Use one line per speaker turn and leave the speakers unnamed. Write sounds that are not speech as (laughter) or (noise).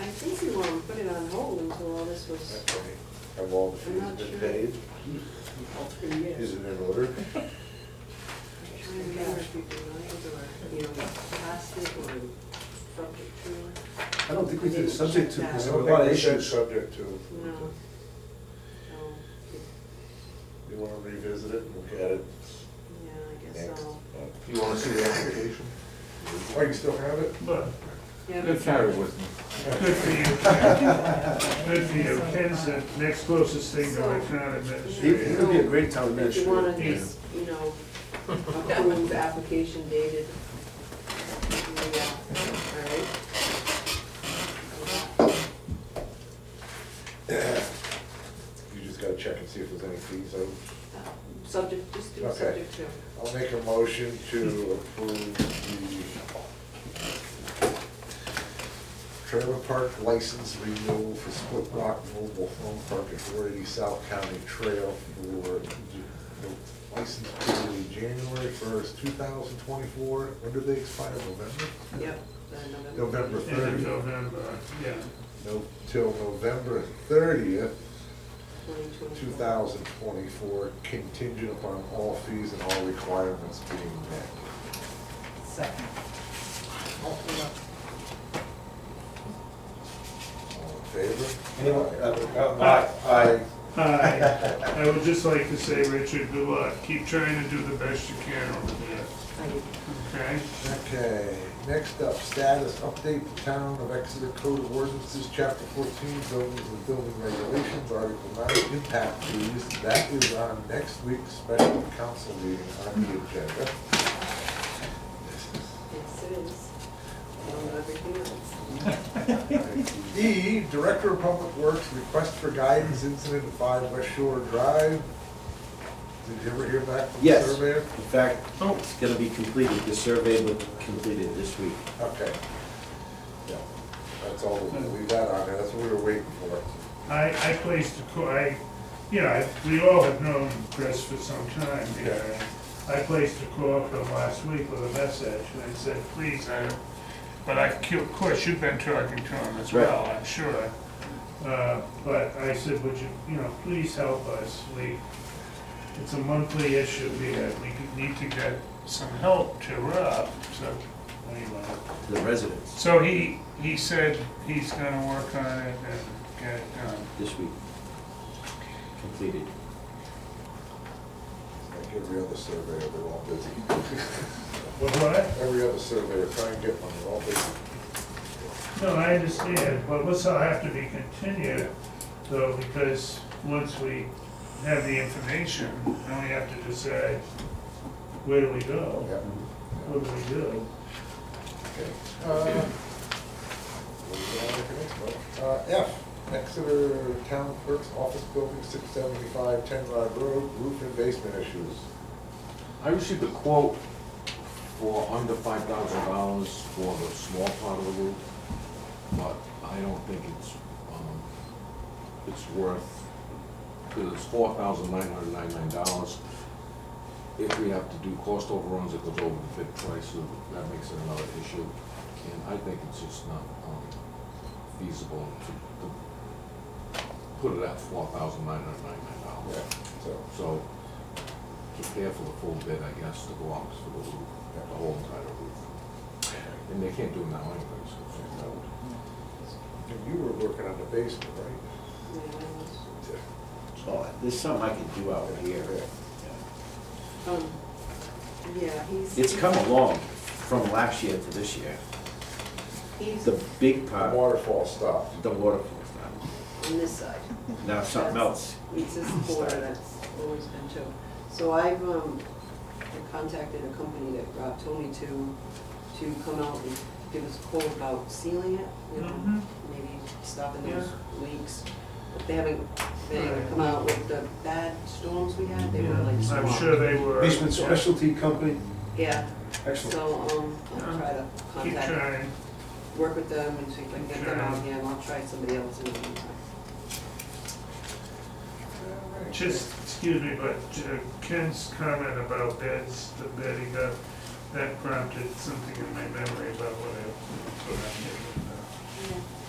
I think we want to put it on hold until all this was,
Have all the
I'm
fees
not
been
sure.
paid?
all three years.
Is it in order?
I'm trying to remember if we did or, you know, plastic or subject to,
I don't think we did subject to,
I
because there were
don't
a lot
think
of
we said
issues.
subject to.
no. No.
You wanna revisit it and look at it?
Yeah, I guess
next?
so.
You wanna see the application?
Oh, you still have it?
But,
Yeah,
Good
but-
carry with me.
good for you, good for you, Ken's the next closest thing to a town
He he
administrator.
would be a great town
If you want
administrator.
to just, you know, approve the application dated. Yeah, all right.
You just gotta check and see if there's any fees out.
Subject, just do
Okay.
subject to.
I'll make a motion to approve the trailer park license renewal for Split Rock Mobile Home Park at four eighty South County Trail for the license period January first, two thousand twenty-four. When do they expire, November?
Yep. the
November
End of November, yeah.
No, till November thirtieth,
2024.
two thousand twenty-four, contingent upon all fees and all requirements being met.
Second.
All in favor?
Anyone? Uh,
Aye.
Aye.
Hi, I would just like to say, Richard, good luck, keep trying to do the best you can over there,
Thank you.
okay?
Okay, next up, status update the town of Exeter Code of Ordinances, chapter fourteen, buildings and building regulations, article nine, impact fees. That is on next week's special council meeting on the agenda.
Yes, it is. Along with everything else.
E, Director of Public Works, request for guidance incident at five West Shore Drive. Did you ever hear back from the
Yes.
surveyor?
In fact,
Oh.
it's gonna be completed, the survey will be completed this week.
Okay. Yeah, that's all, we'll leave that on there, that's what we were waiting for.
I, I placed a call, I, you know, I- we all have known Chris for some time here. I placed a call for him last week with a message, and I said, please, I, but I, of course, you've been talking to him as
Right.
well, I'm sure. Uh, But I said, would you, you know, please help us, we, it's a monthly issue here, we need to get some help to Rob, so, anyway.
To the residents,
So he, he said he's gonna work on it and get it done.
this week. Completed.
Like every other surveyor, they're all busy. (laughs)
What, what?
Every other surveyor, try and get one, they're all busy.
No, I understand, but this will have to be continued, though, because once we have the information, then we have to decide, where do we go?
Yeah.
What do we do?
Okay. Uh, moving on to the next one. Uh, F, Exeter Town Clerk's Office Building, six seventy-five, Ten Rod Road, roof and basement issues.
I received a quote for under five thousand dollars for the small part of the roof, but I don't think it's, um, it's worth, because it's four thousand nine hundred ninety-nine dollars. If we have to do cost overruns, it goes over the bid price, so that makes it another issue. And I think it's just not, um, feasible to, to put it at four thousand nine hundred ninety-nine dollars.
Yeah, so.
So, to pay for the full bid, I guess, to go out for the roof, the whole entire roof. And they can't do it now anyways, so it's not
And you were working on the basement, right?
Yeah, that was-
So Oh, there's something I can do out here.
Um, yeah, he's.
It's come along from last year to this year.
He's
The big
The
part,
waterfall stopped.
the water course
on this side.
now. Now something else.
It's this quarter, that's always been too. So I've, um, contacted a company that Rob told me to, to come out and give us a quote about sealing it, you know,
Mhm.
maybe stopping those leaks. But They haven't, they haven't come out with the bad storms we had, they were like
I'm
swamped.
sure they were.
Basement Specialty Company,
Yeah,
excellent.
so, um, I'll try to
Keep
contact,
trying.
work with them and see if I can get them out here, and I'll try somebody else in the meantime.
Just, excuse me, but uh, Ken's comment about bids, the bid he got, that prompted something in my memory about what I, what I did.
Yeah.